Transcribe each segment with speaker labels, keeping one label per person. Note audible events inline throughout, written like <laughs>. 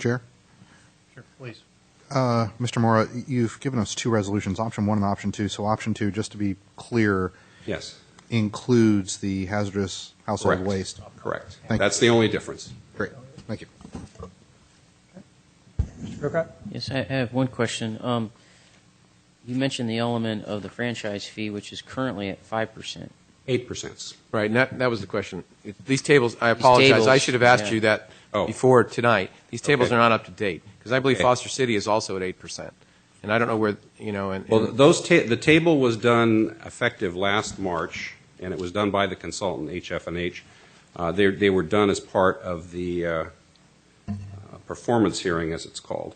Speaker 1: Chair?
Speaker 2: Sure, please.
Speaker 1: Uh, Mr. Mora, you've given us two resolutions, option one and option two. So option two, just to be clear,
Speaker 3: Yes,
Speaker 1: includes the hazardous household
Speaker 3: Correct.
Speaker 1: waste.
Speaker 3: correct.
Speaker 1: Thank you.
Speaker 3: That's the only difference.
Speaker 1: Great, thank you.
Speaker 4: Yes, I I have one question. Um, You mentioned the element of the franchise fee, which is currently at 5%.
Speaker 3: Eight percent.
Speaker 5: Right, and that, that was the question. It- These tables, I apologize, I
Speaker 4: tables,
Speaker 5: should have asked
Speaker 4: yeah.
Speaker 5: you that
Speaker 3: Oh.
Speaker 5: before tonight. These tables
Speaker 3: Okay.
Speaker 5: are not up to date, because I believe
Speaker 3: Okay.
Speaker 5: Foster City is also at 8%. And I don't know where, you know, and,
Speaker 3: Well,
Speaker 5: and-
Speaker 3: those, ta- the table was done effective last March, and it was done by the consultant, HF&H. Uh, They, they were done as part of the uh, uh, performance hearing, as it's called.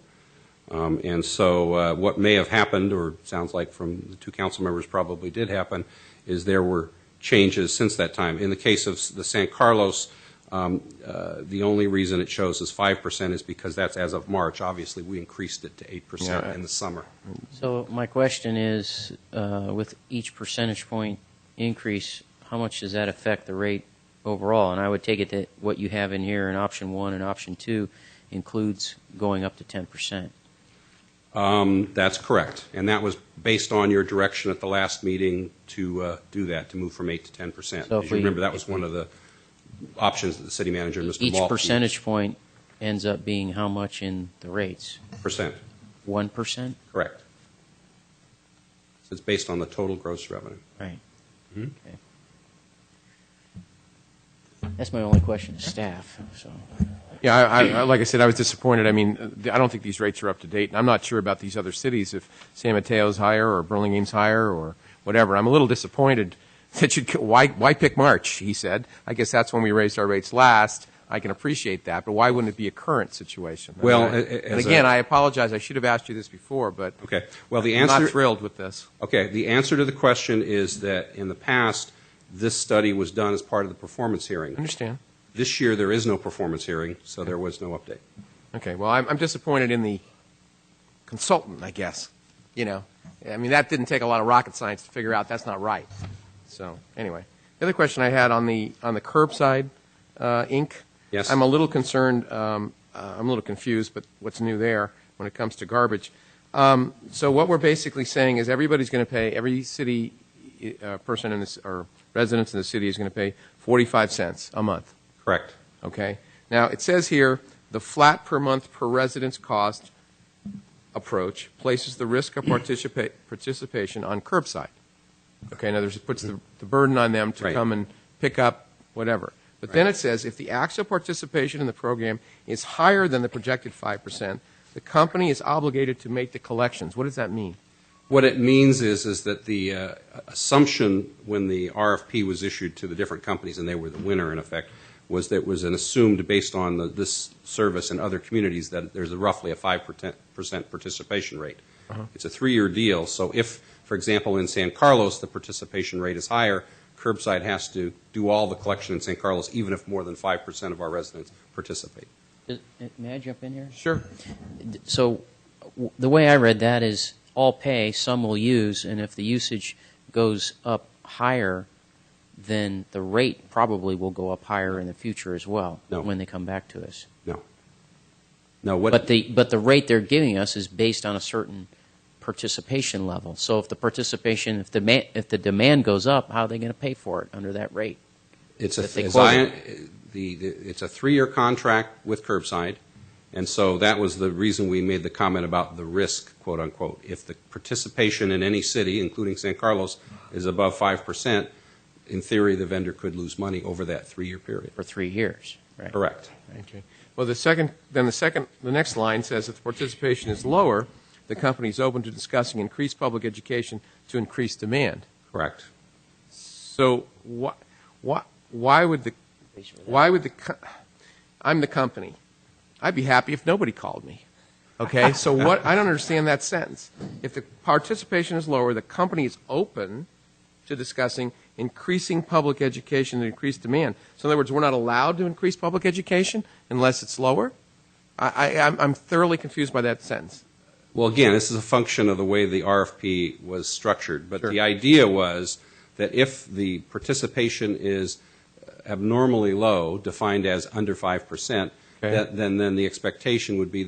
Speaker 3: Um, And so uh, what may have happened, or sounds like from the two council members probably did happen, is there were changes since that time. In the case of s- the San Carlos, um, uh, the only reason it shows as 5% is because that's as of March. Obviously, we increased it to 8%
Speaker 5: Yeah.
Speaker 3: in the summer.
Speaker 4: So my question is, uh, with each percentage point increase, how much does that affect the rate overall? And I would take it that what you have in here in option one and option two includes going up to 10%.
Speaker 3: Um, That's correct, and that was based on your direction at the last meeting to uh, do that, to move from 8 to 10 percent.
Speaker 4: So if
Speaker 3: As you
Speaker 4: we-
Speaker 3: remember, that was one of the options that the city manager, Mr.
Speaker 4: Each
Speaker 3: Maltby.
Speaker 4: percentage point ends up being how much in the rates?
Speaker 3: Percent,
Speaker 4: 1%?
Speaker 3: correct. So It's based on the total gross revenue.
Speaker 4: Right.
Speaker 3: Mhm.
Speaker 4: Okay. That's my only question to staff, so.
Speaker 5: yeah, I, I, I- like I said, I was disappointed. I mean, uh, the- I don't think these rates are up to date, and I'm not sure about these other cities, if San Mateo's higher, or Burlingame's higher, or whatever. I'm a little disappointed <laughs> that you'd, why, why pick March, he said. I guess that's when we raised our rates last. I can appreciate that, but why wouldn't it be a current situation?
Speaker 3: Well,
Speaker 5: And I-
Speaker 3: a- a-
Speaker 5: And
Speaker 3: as a-
Speaker 5: again, I apologize, I should have asked you this before, but
Speaker 3: Okay, well, the
Speaker 5: I'm not
Speaker 3: answer,
Speaker 5: thrilled with this.
Speaker 3: okay, the answer to the question is that in the past, this study was done as part of the performance hearing.
Speaker 5: Understand.
Speaker 3: This year, there is no performance hearing, so there was no update.
Speaker 5: Okay, well, I'm, I'm disappointed in the consultant, I guess. You know, I mean, that didn't take a lot of rocket science to figure out that's not right. So, anyway, the other question I had on the on the curbside uh, ink.
Speaker 3: Yes?
Speaker 5: I'm a little concerned. Um, uh, I'm a little confused, but what's new there when it comes to garbage? Um, so what we're basically saying is everybody's going to pay. Every city uh, person in this or residents in the city is going to pay 45 cents a month.
Speaker 3: Correct.
Speaker 5: Okay? Now, it says here, the flat per month per residence cost approach places the risk of participa- participation on curbside. Okay, in other words, it puts the, the burden on them to
Speaker 3: Right.
Speaker 5: come and pick up whatever. But then it says, if the actual participation in the program is higher than the projected 5%, the company is obligated to make the collections. What does that mean?
Speaker 3: What it means is, is that the uh, assumption when the RFP was issued to the different companies, and they were the winner in effect, was that it was an assumed based on the, this service and other communities that there's a roughly a five percent participation rate. It's a three-year deal, so if, for example, in San Carlos the participation rate is higher, curbside has to do all the collection in San Carlos, even if more than five percent of our residents participate.
Speaker 4: Uh, May I jump in here?
Speaker 5: Sure.
Speaker 4: D- So w- the way I read that is all pay, some will use, and if the usage goes up higher, then the rate probably will go up higher in the future as well
Speaker 3: No.
Speaker 4: when they come back to us.
Speaker 3: Now, what?
Speaker 4: But the but the rate they're giving us is based on a certain participation level. So if the participation, if the ma- if the demand goes up, how are they going to pay for it under that rate?
Speaker 3: It's a,
Speaker 4: that they
Speaker 3: as
Speaker 4: close
Speaker 3: I-
Speaker 4: it.
Speaker 3: the, the, it's a three-year contract with curbside, and so that was the reason we made the comment about the risk, quote unquote. If the participation in any city, including San Carlos, is above five percent, in theory, the vendor could lose money over that three-year period.
Speaker 4: for three years. Right.
Speaker 3: Correct.
Speaker 5: Okay. Well, the second, then the second, the next line says if the participation is lower, the company is open to discussing increased public education to increase demand.
Speaker 3: Correct.
Speaker 5: So why, why, why would the, why would the, co- I'm the company. I'd be happy if nobody called me. Okay, so what, I don't understand that sentence. If the participation is lower, the company is open to discussing increasing public education and increased demand. So in other words, we're not allowed to increase public education unless it's lower? I, I, I'm- I'm thoroughly confused by that sentence.
Speaker 3: Well, again, this is a function of the way the RFP was structured, but
Speaker 5: Sure.
Speaker 3: the idea was that if the participation is abnormally low, defined as under 5%,
Speaker 5: Okay.
Speaker 3: then, then the expectation would be